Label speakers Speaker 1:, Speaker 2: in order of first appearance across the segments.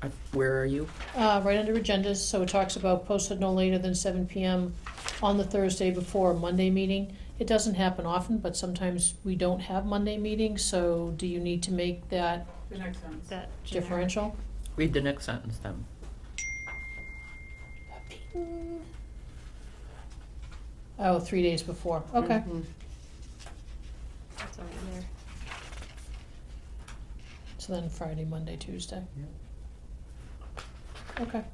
Speaker 1: I- Where are you?
Speaker 2: Uh, right under agendas, so it talks about posted no later than seven PM on the Thursday before a Monday meeting. It doesn't happen often, but sometimes we don't have Monday meetings, so do you need to make that
Speaker 3: The next sentence.
Speaker 4: That generic-
Speaker 2: differential?
Speaker 1: Read the next sentence then.
Speaker 2: Oh, three days before, okay.
Speaker 4: That's already there.
Speaker 2: So then Friday, Monday, Tuesday, okay.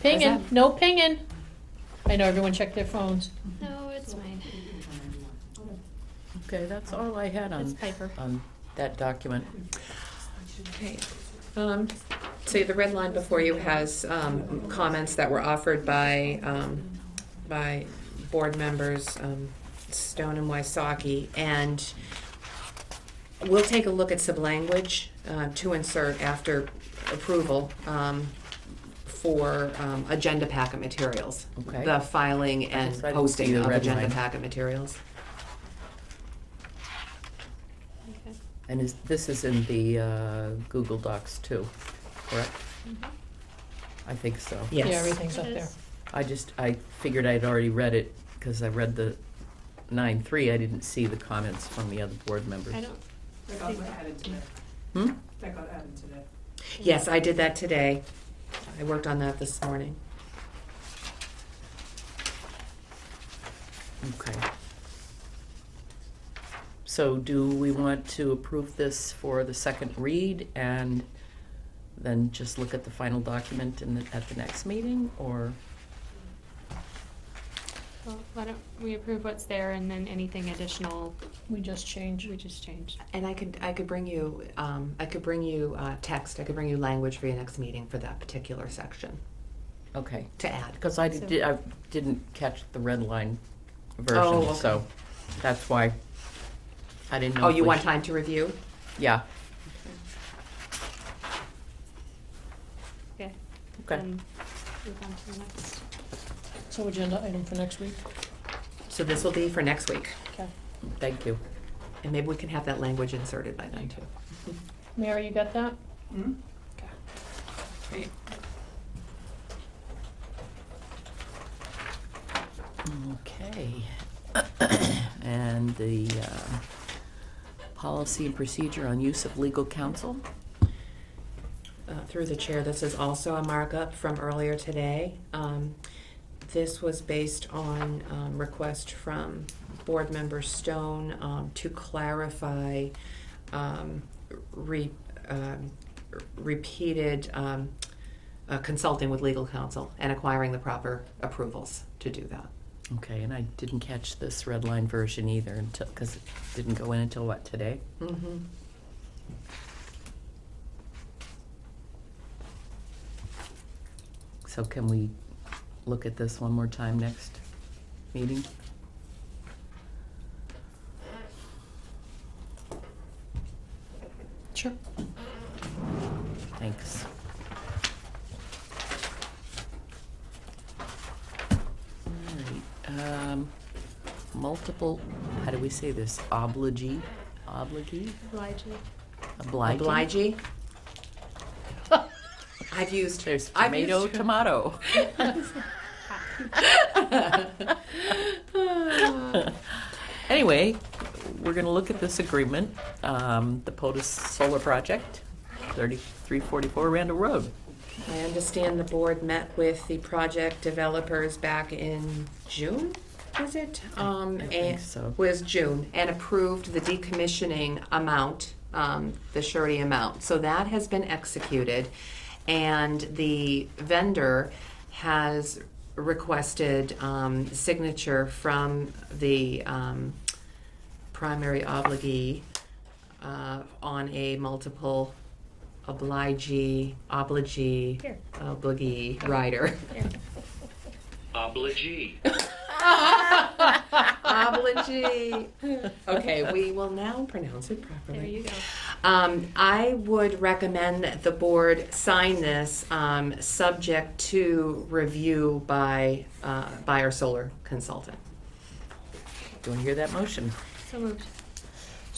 Speaker 2: Pinging,
Speaker 4: that-
Speaker 2: no pinging. I know, everyone check their phones.
Speaker 4: No, it's mine.
Speaker 1: Okay, that's all I had
Speaker 4: It's
Speaker 1: on,
Speaker 4: Piper.
Speaker 2: Um,
Speaker 1: on that document.
Speaker 5: Okay. Um, So the red line before you has um, comments that were offered by, um, by board members um, Stone and Wysocki. And we'll take a look at some language uh, to insert after approval um, for um, agenda packet materials.
Speaker 1: Okay.
Speaker 5: The filing and
Speaker 1: just- I didn't see
Speaker 5: posting
Speaker 1: the
Speaker 5: of
Speaker 1: red
Speaker 5: agenda
Speaker 1: line.
Speaker 5: packet materials.
Speaker 4: Okay.
Speaker 1: And is, this is in the uh, Google Docs too, correct?
Speaker 4: Mhm.
Speaker 1: I think so.
Speaker 2: Yeah,
Speaker 5: Yes.
Speaker 2: everything's up
Speaker 4: It
Speaker 2: there.
Speaker 4: is.
Speaker 1: I just, I figured I'd already read it because I read the nine three. I didn't see the comments from the other board members.
Speaker 4: I don't,
Speaker 3: That got added today.
Speaker 1: Hmm?
Speaker 3: That got added today.
Speaker 5: Yes, I did that today. I worked on that this morning.
Speaker 1: Okay. So do we want to approve this for the second read and then just look at the final document in the, at the next meeting, or?
Speaker 4: well, why don't we approve what's there and then anything additional,
Speaker 2: We just changed.
Speaker 4: we just change.
Speaker 5: And I could, I could bring you, um, I could bring you, uh, text, I could bring you language for your next meeting for that particular section
Speaker 1: Okay,
Speaker 5: to add.
Speaker 1: because I did, I didn't catch the red line version,
Speaker 5: Oh,
Speaker 1: so
Speaker 5: okay.
Speaker 1: that's why I didn't know.
Speaker 5: Oh,
Speaker 1: if
Speaker 5: you
Speaker 1: we
Speaker 5: want
Speaker 1: sh-
Speaker 5: time to review?
Speaker 1: Yeah,
Speaker 4: Okay.
Speaker 1: Okay.
Speaker 4: Then move on to the next.
Speaker 2: So agenda item for next week,
Speaker 5: So this will be for next week,
Speaker 2: okay.
Speaker 1: thank you.
Speaker 5: and maybe we can have that language inserted by then too.
Speaker 2: Mary, you got that?
Speaker 3: Hmm?
Speaker 1: Okay. And the uh, policy and procedure on use of legal counsel?
Speaker 5: Uh, Through the chair, this is also a markup from earlier today. Um, This was based on um, request from Board Member Stone um, to clarify um, re- um, repeated um, uh, consulting with legal counsel and acquiring the proper approvals to do that.
Speaker 1: Okay, and I didn't catch this red line version either until, because it didn't go in until what, today?
Speaker 5: Mm-hmm.
Speaker 1: So can we look at this one more time next meeting?
Speaker 2: Sure.
Speaker 1: Thanks. All right, um, multiple, how do we say this, obligee, obligee,
Speaker 4: Obliging.
Speaker 1: obligee?
Speaker 5: Obligee? I've used.
Speaker 1: There's
Speaker 5: I've
Speaker 1: tomato,
Speaker 5: used-
Speaker 1: tomato.
Speaker 4: Ah,
Speaker 1: Anyway, we're gonna look at this agreement, um, the POTUS Solar Project, thirty-three forty-four Randall Road.
Speaker 5: I understand the board met with the project developers back in June, was it? Um,
Speaker 1: I think
Speaker 5: and-
Speaker 1: so.
Speaker 5: Was June, and approved the decommissioning amount, um, the surety amount. So that has been executed, and the vendor has requested, um, signature from the, um, primary obligee, uh, on a multiple obligee, obligee,
Speaker 2: Here.
Speaker 5: obligee rider.
Speaker 6: Obligee.
Speaker 5: obligee. Okay, we will now pronounce it properly.
Speaker 4: There you go.
Speaker 5: Um, I would recommend that the board sign this, um, subject to review by, uh, by our solar consultant.
Speaker 1: Do you wanna hear that motion?
Speaker 4: So moved.